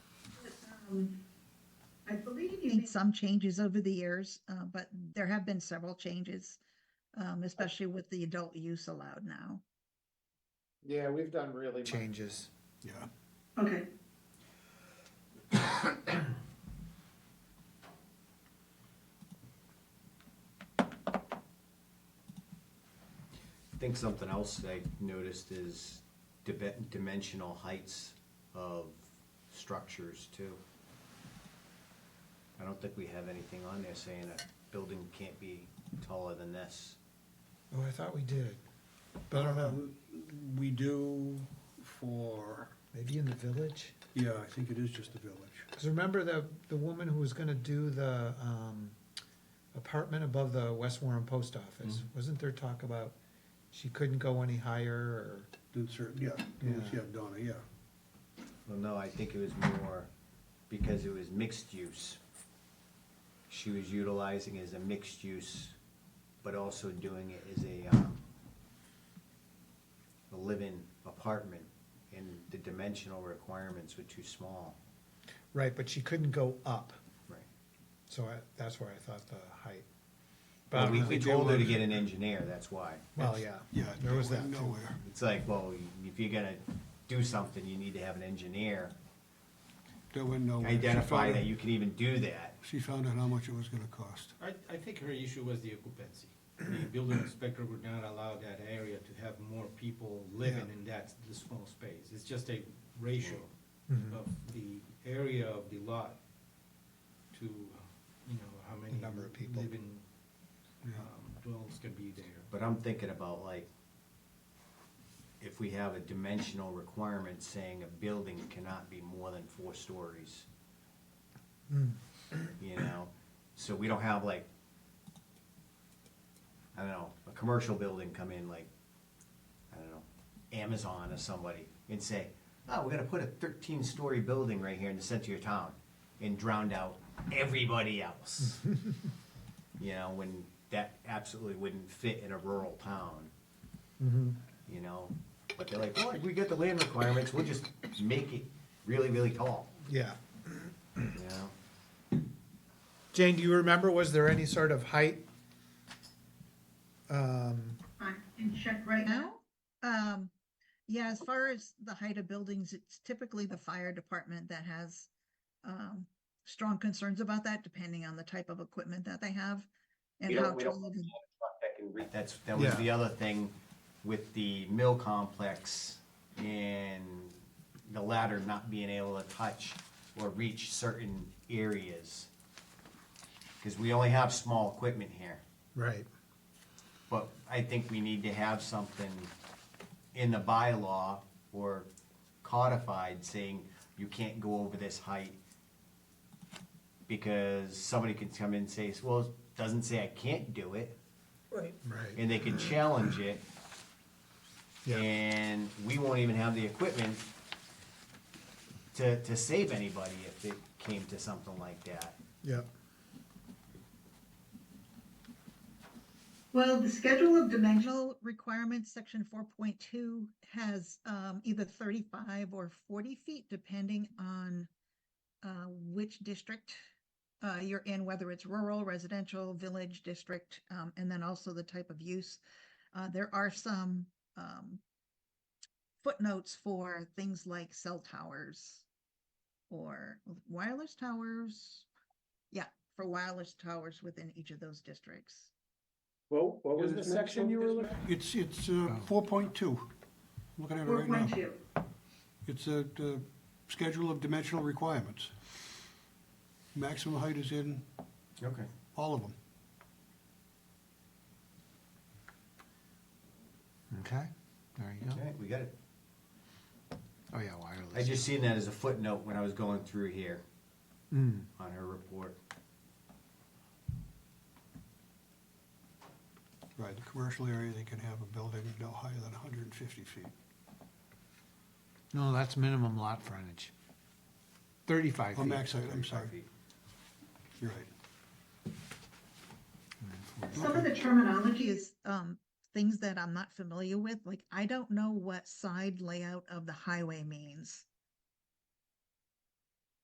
Um, I believe you made Mm-hmm. made some changes over the years, uh, but there have been several changes, um, especially with the adult use allowed now. Yeah, we've done really much. changes. Yeah, Okay, I think something else I noticed is dibe- dimensional heights of structures too. I don't think we have anything on there saying a building can't be taller than this. Oh, I thought we did, but I don't know. we do for, Maybe in the village? yeah, I think it is just the village. Because remember the, the woman who was gonna do the, um, apartment above the West Warren Post Office? Mm-hmm. Wasn't there talk about she couldn't go any higher or? Then certain, yeah, it was- Yeah. yeah, Donna, yeah. Well, no, I think it was more because it was mixed use. She was utilizing it as a mixed use, but also doing it as a, um, a live-in apartment, and the dimensional requirements were too small. Right, but she couldn't go up, Right. so I, that's where I thought the height. But I But don't we, know. we told her to get an engineer, that's why. Well, yeah. Yeah, There was that too. nowhere. It's like, well, if you're gonna do something, you need to have an engineer There went nowhere. She identify found that out- you can even do that. She found out how much it was gonna cost. I, I think her issue was the occupancy. The building inspector would not allow that area to have more people living in that, the small space. It's just a ratio of the area of the lot to, you know, how many. number of people. Living, Yeah. um, dwellings can be there. But I'm thinking about like, if we have a dimensional requirement saying a building cannot be more than four stories. You know, so we don't have like, I don't know, a commercial building come in like, I don't know, Amazon or somebody and say, oh, we're gonna put a thirteen-story building right here in the center of your town and drowned out everybody else. you know, when that absolutely wouldn't fit in a rural town, you know. But they're like, well, we got the land requirements, we'll just make it really, really tall, Yeah. you know. Jane, do you remember, was there any sort of height? I can check right now. Now, um, yeah, as far as the height of buildings, it's typically the fire department that has um, strong concerns about that, depending on the type of equipment that they have and We don't- how we don't- tall the That's, that was Yeah. the other thing with the mill complex and the ladder not being able to touch or reach certain areas. Cause we only have small equipment here. Right. But I think we need to have something in the bylaw or codified saying you can't go over this height. Because somebody can come in and say, well, it doesn't say I can't do it, Right, and they can challenge it. yeah, And we won't even have the equipment to, to save anybody if it came to something like that. yeah. Well, the schedule of dimensional requirements, section four point two, has um either thirty-five or forty feet, depending on uh which district uh you're in, whether it's rural, residential, village, district, um, and then also the type of use. Uh, there are some um footnotes for things like cell towers or wireless towers. Yeah, for wireless towers within each of those districts. Well, what was the Isn't that section you were looking? It's, it's, uh, Oh. four point two. Looking at it Four right now. point two. It's a, uh schedule of dimensional requirements. Maximum height is in Okay. all of them. Okay, there you go. Okay, we got it. Oh, yeah, wireless. I just seen that as a footnote when I was going through here. Mm. on her report. Right, the commercial area, they can have a building no higher than hundred and fifty feet. No, that's minimum lot frontage. Thirty-five Oh, feet. max height, I'm sorry, Feet. you're right. Some of Okay. the terminology technology is is um things that I'm not familiar with, like I don't know what side layout of the highway means.